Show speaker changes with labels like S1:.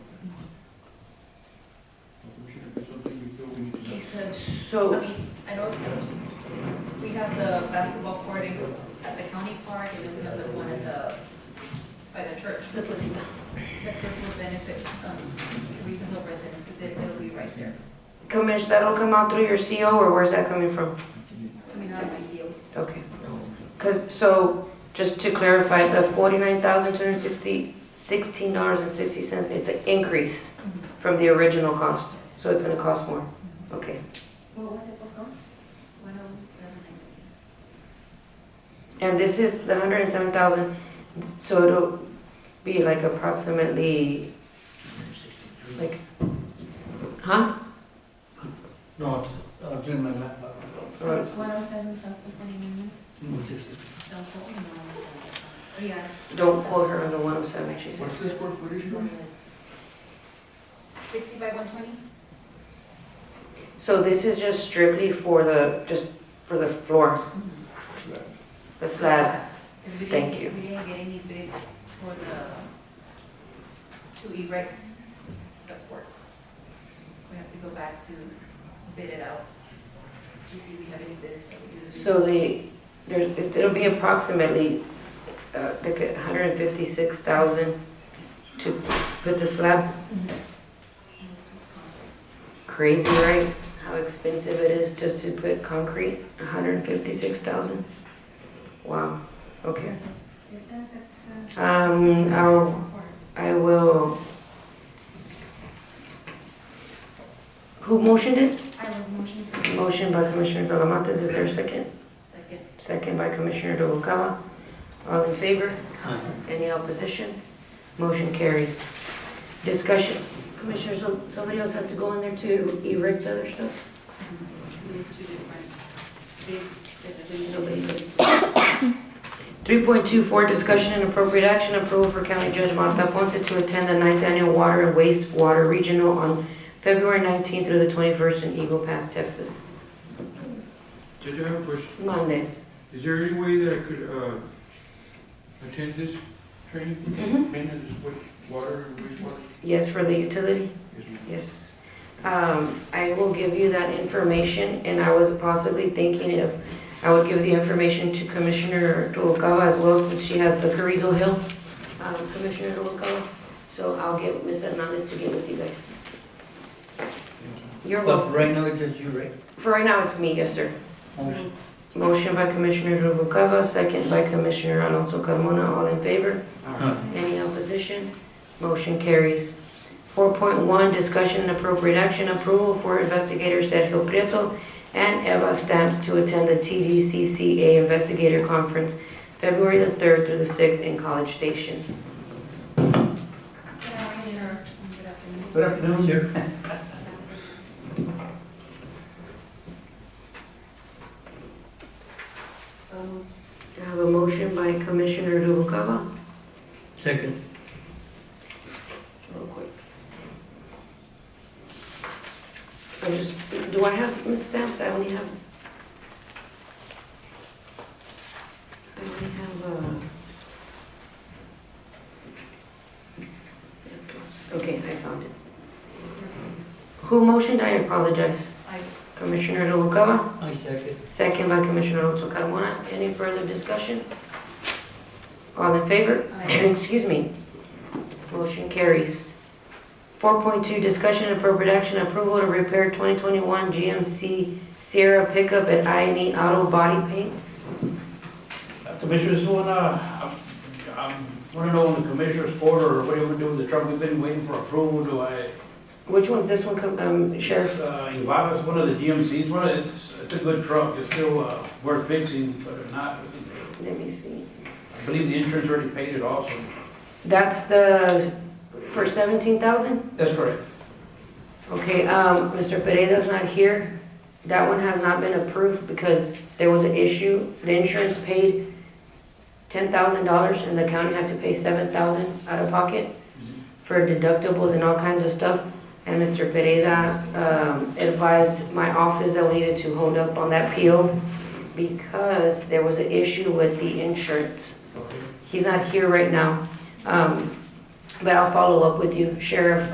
S1: But
S2: I
S1: so,
S2: mean, I know we have the basketball court in- at the county park, and then we have the one at the, by the church.
S1: the placita.
S2: But this will benefit um, reasonable residents, because it'll be right there.
S1: Commissioner, that'll come out through your CO, or where's that coming from?
S2: This is coming out of my COs.
S1: Okay. Because, so, just to clarify, the $49,260, $16.60, it's an increase
S2: Mm-hmm.
S1: from the original cost. So it's going to cost more. Okay.
S2: What was it before? One oh seven, I
S1: And this is the 107,000, so it'll be like approximately, like, huh?
S3: No, it's- I was doing my math by myself.
S2: think. So
S1: uh,
S2: it's one oh seven plus the forty million?
S3: Mm, sixty.
S2: Don't quote me on this. Yeah, it's-
S1: Don't quote her on the 107, she says.
S3: What's this square footage now?
S2: Sixty by one twenty?
S1: So this is just strictly for the, just for the floor,
S2: Mm-hmm.
S1: the slab.
S2: Because we
S1: Thank
S2: didn't- We didn't get any bids for the, to erect the fort. We have to go back to bid it out to see if we have any bidders that would do the.
S1: So the, there, it'll be approximately, uh, like a hundred and fifty-six thousand to put the slab.
S2: And it's just concrete.
S1: Crazy, right? How expensive it is just to put concrete, a hundred and fifty-six thousand? Wow, okay. Um, I'll, I will. Who motioned it?
S2: I have a motion.
S1: Motion by Commissioner Talamantes, is there a second?
S2: Second.
S1: Second by Commissioner Noguera. All in favor? Any opposition? Motion carries. Discussion. Commissioner, so somebody else has to go in there to erect the other stuff?
S2: There's two different bids that have been.
S1: Nobody did. 3.24, discussion and appropriate action, approval for County Judge Martha Ponce to attend the ninth annual Water and Wastewater Regional on February 19th through the 21st in Eagle Pass, Texas.
S4: Judge, I have a question.
S1: Monday.
S4: Is there any way that I could uh, attend this training?
S1: Mhm.
S4: Men in this wa- water and wastewater?
S1: Yes, for the utility?
S4: Yes, ma'am.
S1: Yes. Um, I will give you that information, and I was possibly thinking if I would give the information to Commissioner Duokawa as well, since she has the Carrizo Hill, um, Commissioner Duokawa. So I'll get Ms. Hernandez to get with you guys. You're
S3: But
S1: welcome.
S3: for right now, it's just you, right?
S1: For right now, it's me, yes, sir.
S3: Motion.
S1: Motion by Commissioner Duokawa, second by Commissioner Alonso Carmona, all in favor?
S3: Huh.
S1: Any opposition? Motion carries. 4.1, discussion and appropriate action, approval for investigator Sergio Prieto and Eva Stamps to attend the TDCCA Investigator Conference, February the 3rd through the 6th in College Station.
S2: Good afternoon. Good afternoon.
S3: Good afternoon, sir.
S2: So,
S1: I have a motion by Commissioner Noguera.
S3: Second.
S1: Real quick. I just, do I have Ms. Stamps? I only have... I only have, uh... uh, Okay, I found it. Who motioned? I apologize.
S2: I,
S1: Commissioner Noguera,
S3: I second.
S1: second by Commissioner Alonso Carmona. Any further discussion? All in favor?
S2: I,
S1: Excuse me. Motion carries. 4.2, discussion and appropriate action, approval to repair 2021 GMC Sierra pickup at I&E E Auto Body Paints.
S5: Uh, Commissioners, wanna, um, wanna know on the commissioner's board or what do you wanna do with the truck? We've been waiting for approval. Do I,
S1: Which one's this one, com- um, Sheriff?
S5: uh, Invada's one of the GMCs, one of, it's, it's a good truck. It's still, uh, worth fixing, but if not, we can-
S1: Let me see.
S5: I believe the insurance already paid it also.
S1: That's the, for 17,000?
S5: That's correct.
S1: Okay, um, Mr. Pereira's not here. That one has not been approved because there was an issue. The insurance paid $10,000 and the county had to pay 7,000 out of pocket for deductibles and all kinds of stuff. And Mr. Pereira, um, advised my office that we needed to hold up on that PO because there was an issue with the insurance.
S5: Okay.
S1: He's not here right now. Um, but I'll follow up with you, Sheriff,